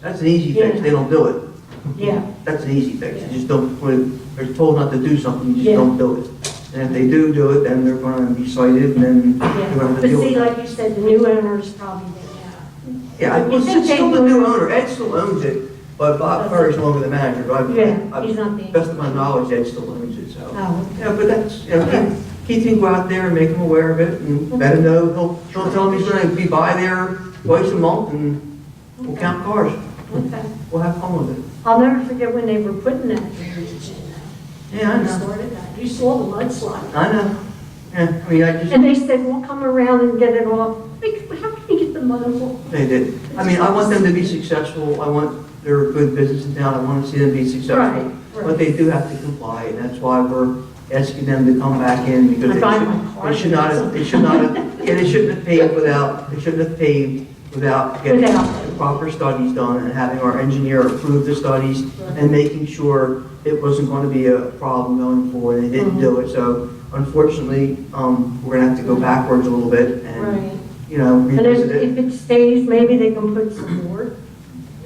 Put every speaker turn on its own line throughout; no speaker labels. That's an easy fix, they don't do it.
Yeah,
That's an easy fix, you just don't, when they're told not to do something, you just
Yeah.
don't do it. And if they do do it, then they're gonna be cited, and then
yeah.
you're gonna have
But
to deal
see,
with it.
like you said, the new owners probably didn't have.
Yeah, I- well,
you think
it's still the new
they-
owner, Ed still owns it, but Bob Perry's no longer the manager, but I-
Yeah, he's
I,
not being.
best of my knowledge, Ed still owns it, so.
Oh,
Yeah, but that's, you know, Keith can go out there and make him aware of it and let him know, he'll, he'll tell him he's gonna be by there twice a month and we'll count cars,
okay.
we'll have fun with it.
I'll never forget when they were putting that drainage in. there.
Yeah, I
They
know,
started that. You saw the mudslide.
I know, yeah, I mean, I just,
And they said, we'll come around and get it off. Like, how can you get the mud off?
they did. I mean, I want them to be successful, I want, they're a good business in town, I wanna see them be
Right,
successful. But
right.
they do have to comply, and that's why we're asking them to come back in, because
I
they
find
should-
my car.
they should not, have- they should not, have- yeah, they shouldn't have paved without, they shouldn't have paved without getting
Without.
the proper studies done and having our engineer approve the studies and making sure it wasn't going to be a problem going forward, they didn't
Mm-hmm.
do it, so unfortunately, um, we're gonna have to go backwards a little bit and,
Right.
you know,
And
revisit
if,
it.
if it stays, maybe they can put some more,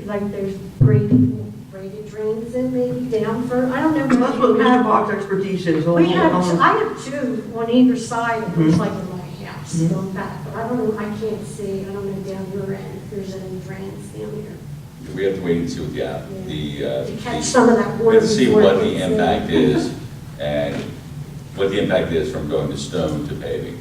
like there's graded, graded drains in maybe down for, I don't know. Uh,
That's what Mr. Bach's expertise is. he'll-
We have,
he'll-
I have two on either side, and it's
Mhm.
like in my house,
Mhm.
going back, but I don't know, I can't see, I don't know down your end, if there's any drains down here.
We have to wait and see what the, app- the, uh,
To catch
the-
some of that
we
water.
have to see
before
what
it
the
gets in.
impact is and what the impact is from going to stone to paving.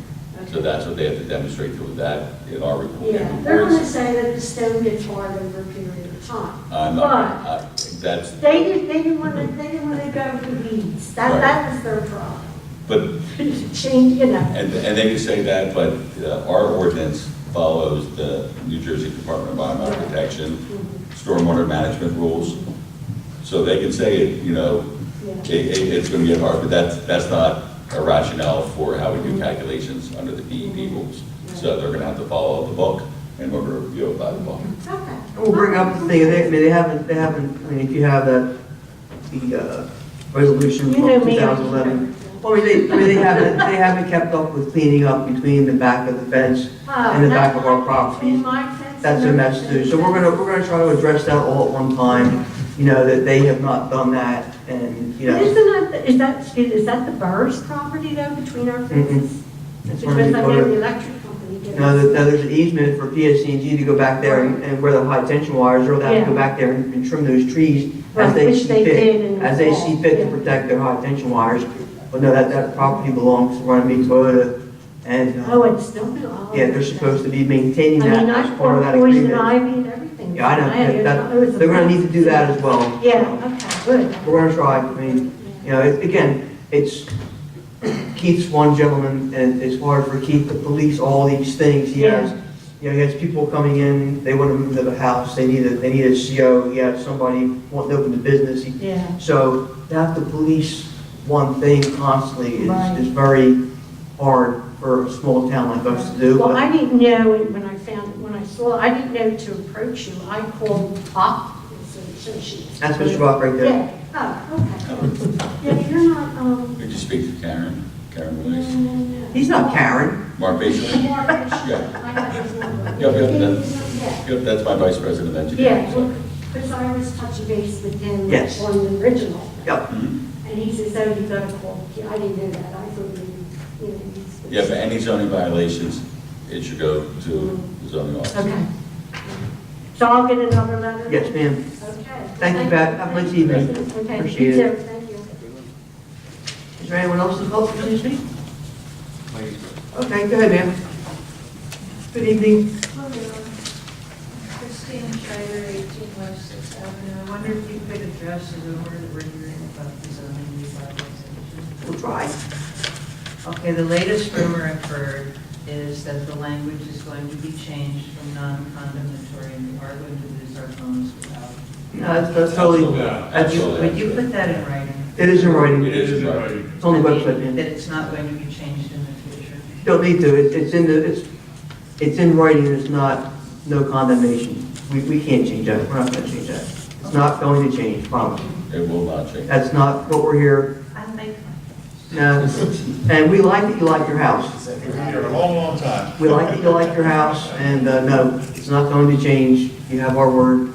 So
Okay.
that's what they have to demonstrate through that in our report.
Yeah, they're gonna say that the stone gets hard over a period of time.
I'm not, I- that's,
But they didn't, they didn't wanna, they didn't wanna go for the weeds, that,
Right.
that was their problem.
but
Change, you know.
And, and they can say that, but uh, our ordinance follows the New Jersey Department of Environmental Protection,
Mhm,
stormwater management rules. So they can say, it, you know,
yeah.
it, it- it's gonna get hard, but that's, that's not a rationale for how we do calculations under the DEP rules. So they're gonna have to follow the book, and we're gonna review it by the book.
Okay.
We'll bring up the thing, they, I mean, they haven't, they haven't, I mean, if you have that, the, uh, resolution
You
from
know me.
2011. Well, I mean, they, I mean, they haven't, they haven't kept up with cleaning up between the back of the fence.
Oh,
in the back
that's
of our
my-
property.
in my fence
That's a
and
mess too. So we're
everything.
gonna, we're gonna try to address that all at one time, you know, that they have not done that and, you know.
Isn't that, is that, excuse, is that the Burr's property though, between our
Mm-hmm.
fences?
it's
Because
gonna
I
be
know
part of-
the electric company did.
Now, that- now there's an easement for PSCNG to go back there and and where the high tension wires are, they have to go
Yeah.
back there and and trim those trees as
Right,
they
which
see
they did
fit,
in
as they
the
see
fall,
fit to
yeah.
protect their high tension wires. But no, that, that property belongs to Runaby Toyota, and,
Oh,
uh,
it's still. oh,
yeah, they're
okay.
supposed to be maintaining
I
that
mean,
as part
I
of
poured
that
poison
agreement.
ivy and everything.
Yeah, I know,
had-
that,
it was a
that, they're gonna
mess.
need to do that as well. So,
Yeah, okay, good.
We're gonna try, I mean, you know, it- again, it's, Keith's one gentleman, and it's hard for Keith to police all these things, he has you know, he has people coming in, they want to move to the house, they need a, they need a CO, he has somebody wanting to open the business. He-
Yeah,
So to have to police one thing constantly
Right.
is, is very hard for a small town like us to do.
well,
but-
I didn't know it when I found, when I saw, it. I didn't know to approach you, I called up, so she.
That's Mr. Rock right there.
Yeah, oh, okay. Yeah, you're not, um,
Did you speak to Karen? Karen
no, no,
Williams?
no.
He's not Karen.
Mm-hmm.
Mark Baker?
Mark Fisher.
Yeah.
I have his number.
Yeah, yeah, that's-
Yeah.
Yep, that's my vice president of engineering.
Yeah,
so-
well, because I was touching base with him
Yes.
on the original.
Yep.
Mhm.
And he says, oh, you gotta call, Ke- I didn't know that, I thought you, you know, he's.
Yeah, but any zoning violations, it should go to the zoning officer.
Okay. So I'll get another letter?
Yes, ma'am.
Okay.
Thank you, Pat. Have a nice evening.
Okay, you
Appreciate it.
too. thank you.
Is there anyone else involved in this meeting? Okay, go ahead, ma'am. Good evening.
Hello, Christine Schreiber, 18 West Sixth Avenue. I wonder if you could address the rumor that we're hearing about the zoning revitalization?
We'll try.
Okay, the latest rumor I've heard is that the language is going to be changed from non-condemnatory, and we are going to lose our homes without.
No, that's- that's totally,
That's all
Would
I-
you put that in writing?
it is in writing.
It is in writing.
It's on the
I
website,
mean,
ma'am.
That it's not going to be changed in the future?
Don't need to, It's- it's in the, it's, it's in writing, it's not, no condemnation. We, we can't change that, we're not gonna change that. It's not going to change, promise.
It will not change.
That's not what we're here,
I like
no. And we like that you like your house.
We've been here a long, long time.
We like that you like your house, and, uh, no, it's not going to change. You have our word,